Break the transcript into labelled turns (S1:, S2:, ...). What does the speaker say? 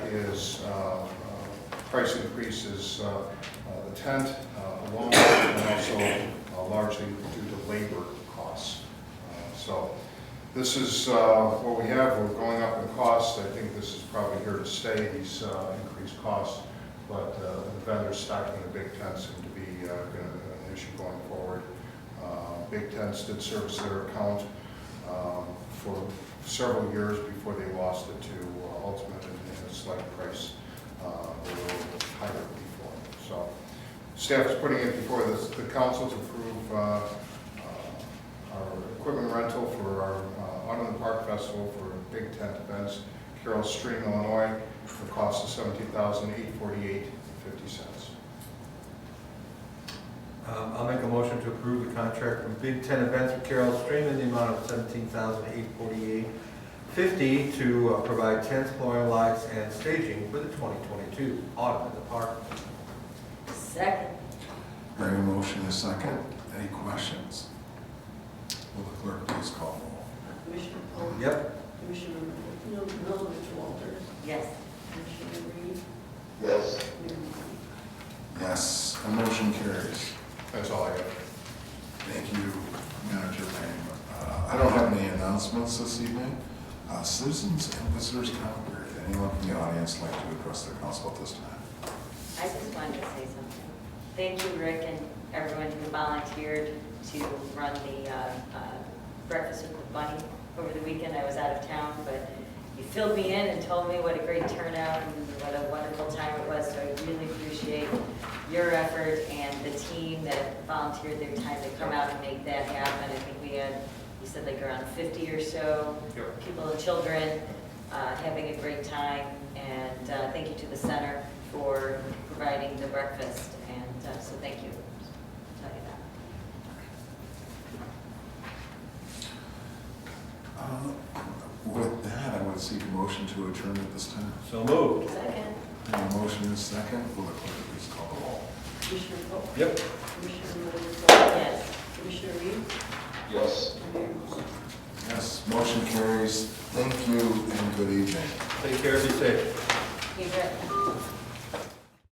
S1: uh, price increase is uh, uh, the tent, uh, along with, and also uh, largely due to labor costs. Uh, So this is uh, what we have, we're going up in cost, I think this is probably here to stay, these uh, increased costs, but uh, the vendors stocking the big tents seem to be uh, gonna- an issue going forward. Uh, Big tents did service their account um, for several years before they lost it to uh, Ultimate at a slight price, uh, they were a little higher before. So staff is putting it before this- the council to approve uh, uh, our equipment rental for our uh, Autumn in the Park Festival for Big Tent events, Carroll Stream, Illinois, for a cost of seventeen thousand eight forty-eight fifty cents.
S2: Um, I'll make a motion to approve the contract with Big Ten Events with Carroll Stream in the amount of seventeen thousand eight forty-eight fifty to uh, provide tents, flooring, lights, and staging for the twenty twenty-two Autumn in the Park.
S3: Second.
S4: I have a motion and a second. Any questions? Will the clerk please call the roll?
S5: Uh, Commissioner Polk.
S2: Yep,
S5: Commissioner Mil- Milovich Walters.
S3: Yes.
S5: Commissioner Reed.
S6: yes,
S5: Mayor Martin.
S4: Yes, the motion carries.
S1: That's all I have.
S4: Thank you, Manager Lang. Uh, I don't have any announcements this evening. Uh, Citizens and visitors comment period. Anyone from the audience like to address the council at this time?
S3: I just wanted to say something. Thank you, Rick, and everyone who volunteered to run the uh, uh, Breakfast with the Bunny over the weekend. I was out of town, but you filled me in and told me what a great turnout and what a wonderful time it was, so I really appreciate your effort and the team that volunteered their time to come out and make that happen. I think we had, you said like around 50 or so
S1: Yep.
S3: people and children, uh, having a great time, and uh, thank you to the center for providing the breakfast, and uh, so thank you. Tell you that.
S4: Uh, With that, I would seek a motion to adjourn at this time.
S2: so moved.
S3: Second.
S4: I have a motion and a second. Will the clerk please call the roll?
S5: Commissioner Polk.
S2: Yep.
S5: Commissioner Milovich Walters.
S3: Yes.
S5: Commissioner Reed.
S6: yes.
S5: and Mayor Martin.
S4: Yes, motion carries. Thank you and good evening.
S2: Take care, be safe.
S3: You bet.